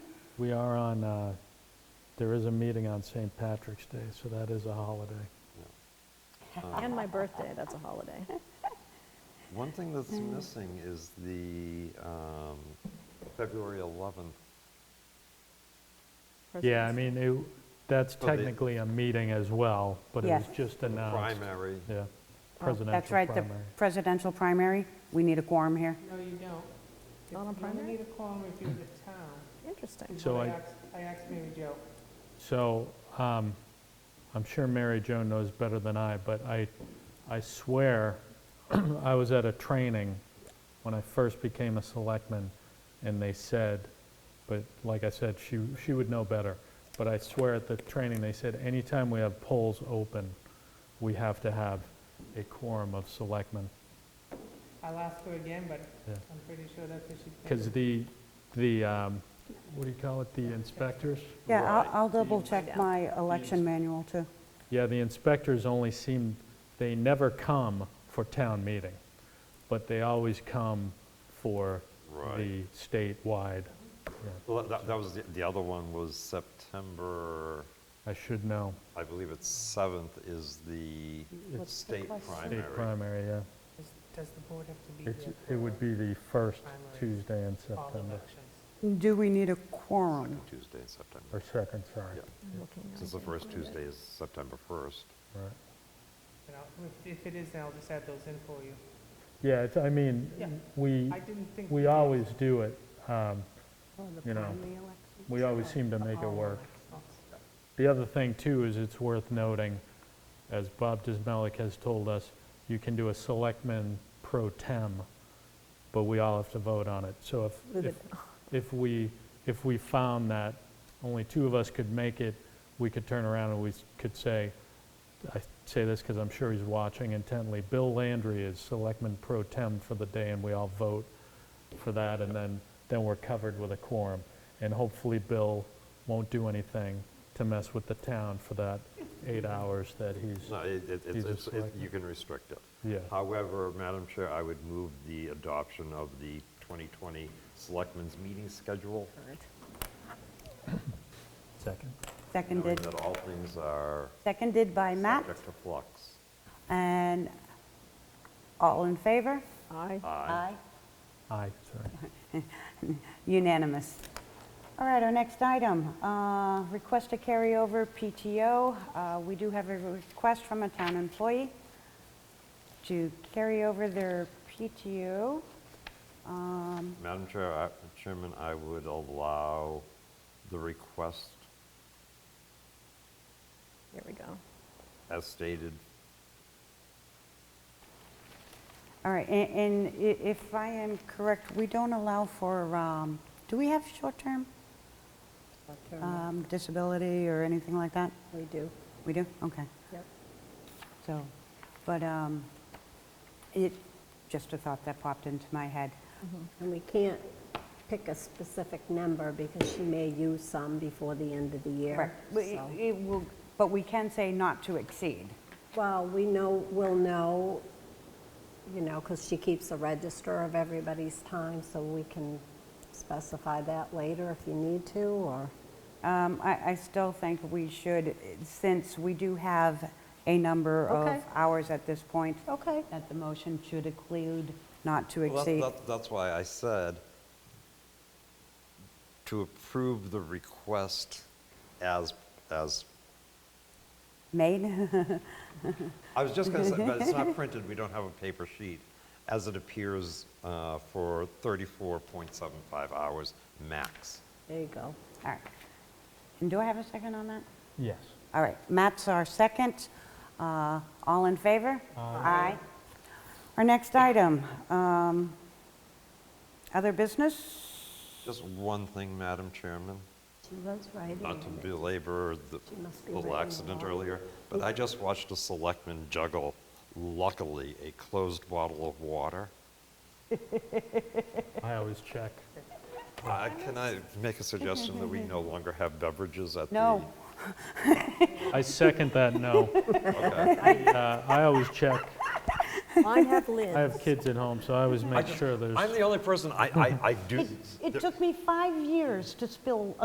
we are on, uh, there is a meeting on St. Patrick's Day, so that is a holiday. And my birthday, that's a holiday. One thing that's missing is the um, February 11th. Yeah, I Christmas. mean, it- that's So the- technically a meeting as well, but it was Oh, Yes. just the announced. Primary. Yeah, Oh, That's presidential right, the primary. presidential primary. We need a quorum here. No, you don't. Not on You only primary? need a quorum if you're the town. Interesting. So What I- asked- I asked Mary Jo. So um, I'm sure Mary Jo knows better than I, but I, I swear, I was at a training when I first became a selectman, and they said, but like I said, she, she would know better. But I swear at the training, they said, anytime we have polls open, we have to have a quorum of selectmen. I'll ask her again, but Yeah. I'm pretty sure that's what she Because said. the, the, um, what do you call it, the inspectors? Yeah, I'll- Right. I'll double check Yeah. my election manual too. Yeah, the inspectors only seem, they never come for town meeting, but they always come for Right. the statewide. Yeah, Well, that, that was, the- the other one was September, I should know, I believe it's 7th is the state state primary. primary, yeah. Does- Does the board have to be It's- It here? would be the first Primary. Tuesday in for All September, elections. Do we need a quorum? Second Tuesday in September. or second, sorry. Yeah, I'm looking now. since the first Tuesday is September 1st. Right. And I'll- if- If it is, then I'll just add those in for you. Yeah, it's, I Yeah. mean, we, I didn't think. we did. always do it. um, You know, election. We always seem to make it All Oh, work. elections. The other thing, too, is it's worth noting, as Bob Dismelik has told us, you can do a selectman pro tem, but we all have to vote on it. So if, Move if, it. if we, if we found that only two of us could make it, we could turn around and we s- could say, I say this because I'm sure he's watching intently, Bill Landry is selectman pro tem for the day, and we all vote for that, and then, then we're covered with a quorum. And hopefully Bill won't do anything to mess with the town for that eight hours that he's, No, it- it- He's it's, a it's- it- selectman. you can restrict it. yeah. However, Madam Chair, I would move the adoption of the 2020 Selectmen's Meeting Schedule, Second. knowing Seconded, that all things are seconded by Matt. subject to flux. And all in favor? Aye. Aye. Aye, sorry. Unanimous. All right, our next item, uh, request to carry over PTO. Uh, We do have a request from a town employee to carry over their PTO. Um, Madam Chair, I- Chairman, I would allow the request There we go. as stated. All right, a- and i- if I am correct, we don't allow for, um, do we have short-term um, disability or anything like that? We do. We do? Okay. Yep. So, but um, it, just a thought that popped into my head. And we can't pick a specific number because she may use some before the end of the year. Correct. We- so- it will- But we can say not to exceed. Well, we know, we'll know, you know, because she keeps a register of everybody's time, so we can specify that later if you need to, or, Um, I I still think we should, since we do have a number of Okay. hours at this point, okay. that the motion should include not to Well, that- exceed. that- That's why I said to approve the request as, as, Made? I was just going to say, but it's not printed, we don't have a paper sheet, as it appears uh, for 34.75 hours max. There you go. All right. And do I have a second on that? Yes. All right, Matt's our second. Uh, All in favor? Aye. Our next item, um, other business? Just one thing, Madam Chairman, She was right. not to belabor the She must be little writing accident a lot. earlier, but I just watched a selectman juggle, luckily, a closed bottle of water. I always check. Uh, Can I make a suggestion that we no longer have beverages at the? No. I second that, no. Okay. Uh, I always check. Mine have I have lids. kids at home, so I always make sure there's. I'm the only person, I, I, I do. It took me five years to spill